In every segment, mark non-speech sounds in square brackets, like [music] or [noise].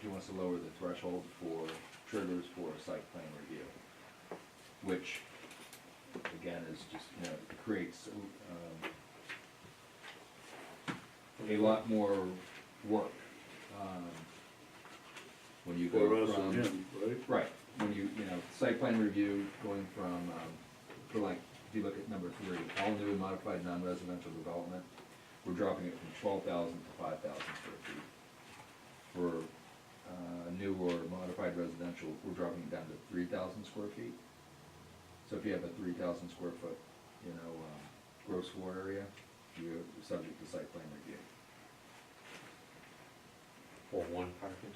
he wants to lower the threshold for triggers for a site plan review, which, again, is just, you know, creates, um, a lot more work, um, when you For go us from. and him, right? Right, when you, you know, site plan review going from, um, for like, if you look at number three, all new and modified non-residential development, we're dropping it from twelve thousand to five thousand square feet. For, uh, new or modified residential, we're dropping it down to three thousand square feet. So if you have a three thousand square foot, you know, um, gross floor area, you're subject to site plan review. For one parking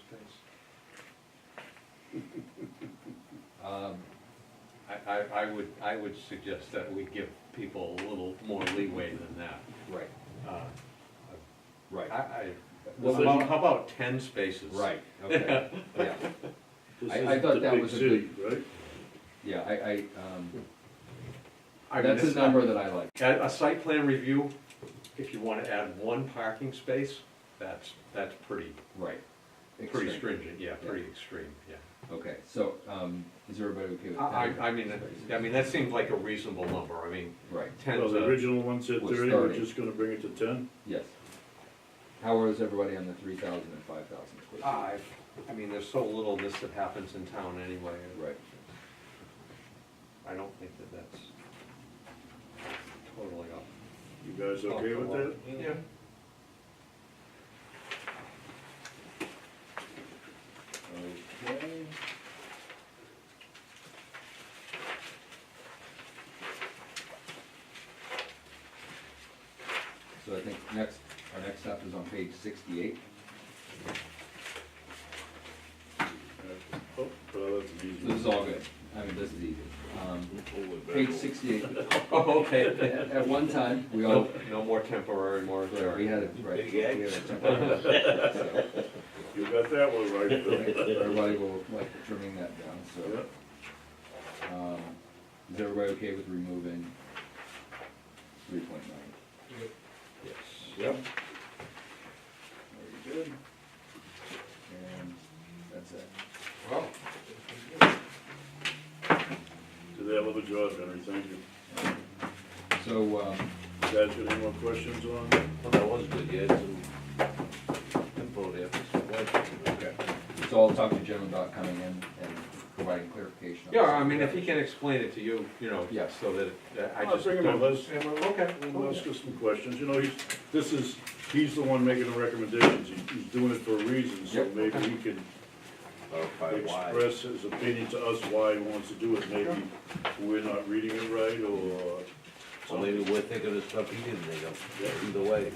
[laughs] space? Um, I, I, I would, I would suggest that we give people a little more leeway than that. right, Uh, right, I, I, Well, how about, how about ten spaces? right, okay, yeah. This I- I isn't thought the that big was a city, good- Right? Yeah, I, I, um, I mean, that's a it's- number that I like. A, a site plan review, if you wanna add one parking space, that's, that's pretty, Right. pretty Extreme. stringent, yeah, pretty extreme, yeah. Okay, so, um, is everybody okay with that? I, I I mean, I mean, that seems like a reasonable number, I mean, Right, Well, ten's the a, original one said was thirty, we're 30. just gonna bring it to ten. yes. How is everybody on the three thousand and five thousand square I, I mean, there's so little of this that happens in town anyway. feet? Right, I don't think that that's totally off. You guys Oh, okay with that? Yeah. okay. So I think next, our next step is on page sixty-eight. Oh, well, that's an easy. This is all good, I mean, this is easy. Um, one. Pull it back page over. [laughs] sixty-eight, Oh, at, okay. at one time, we all, No, no more temporary Right, we moratorium. had it, right. Big we had eggs. it temporary, so, You got that one right, Bill. Everybody will like trimming that down, Yeah. so, um, is everybody okay with removing three point nine? Yes. Yep. Very good. And that's it. Well, Did that little job, Henry, thank you. So, um, Guys, got any more questions on? it? Well, that was good, yeah, some info there. okay, so I'll talk to Jim about coming in and providing clarification. on yeah, this. I mean, if he can explain it to you, you know, Yeah. so that it- that I I'll just. bring him up, don't- let's, Okay. we'll ask us some questions, you know, he's, this is, he's the one making the recommendations, He- he's doing it for a reason, so Yep. maybe he can express his opinion to us why he wants to do it, maybe we're not reading it right, or Well, maybe we're thinking of stuff he didn't think of, either way.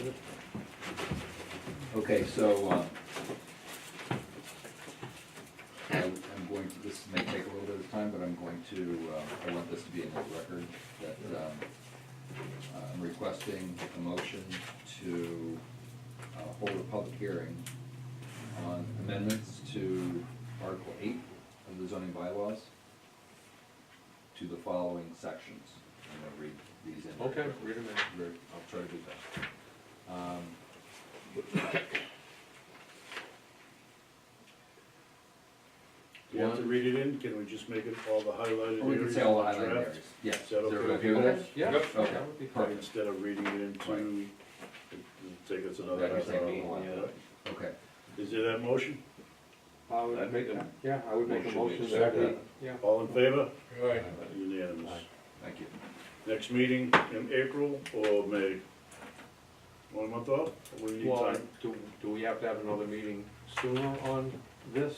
Okay, so, um, I- I'm going to, this may take a little bit of time, but I'm going to, uh, I want this to be in the record, that um, I'm requesting a motion to uh, hold a public hearing on amendments to Article eight of the zoning bylaws to the following sections. I'm gonna read these in. Okay, read him in. Very- I'll try to do that. Um, do you have to read it in, can we just make it all the highlighted Or we can areas say all in the island draft? areas, yes. Is that okay with everybody you? with Yeah. Yep. yeah, Okay. that would be fine. Instead of reading it into, it'll take us another That could half take hour. me a while. Yeah. that? Okay, Is there that motion? I would I'd make, make a yeah, I would make a motion to motion that we, accept yeah. All in favor? Right. Unanimous. Aye. thank you. Next meeting in April or May? One month off? We need Well, time. do, do we have to have another meeting sooner on this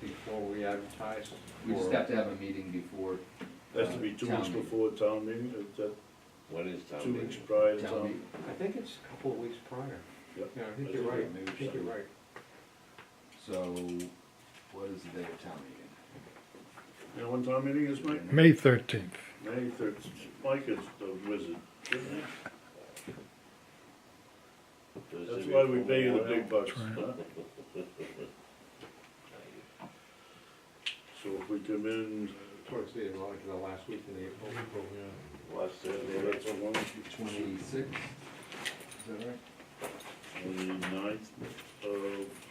before we advertise? We just Or- have to have a meeting before Has to be two Town weeks meeting. before town meeting, is that When is town two weeks meeting? prior to town town? meeting. I think it's a couple of weeks prior. Yep. Yeah, I think you're right, I think you're right. So, what is the day of town meeting? You know when town meeting is, Mike? May thirteenth. May third, Mike is the wizard. isn't he? That's why we pay you the big bucks, That's huh? So if we come in, Towards the, like, the last week in April. Last uh, Saturday, that's a one, Twenty-sixth, is that right? twenty-ninth of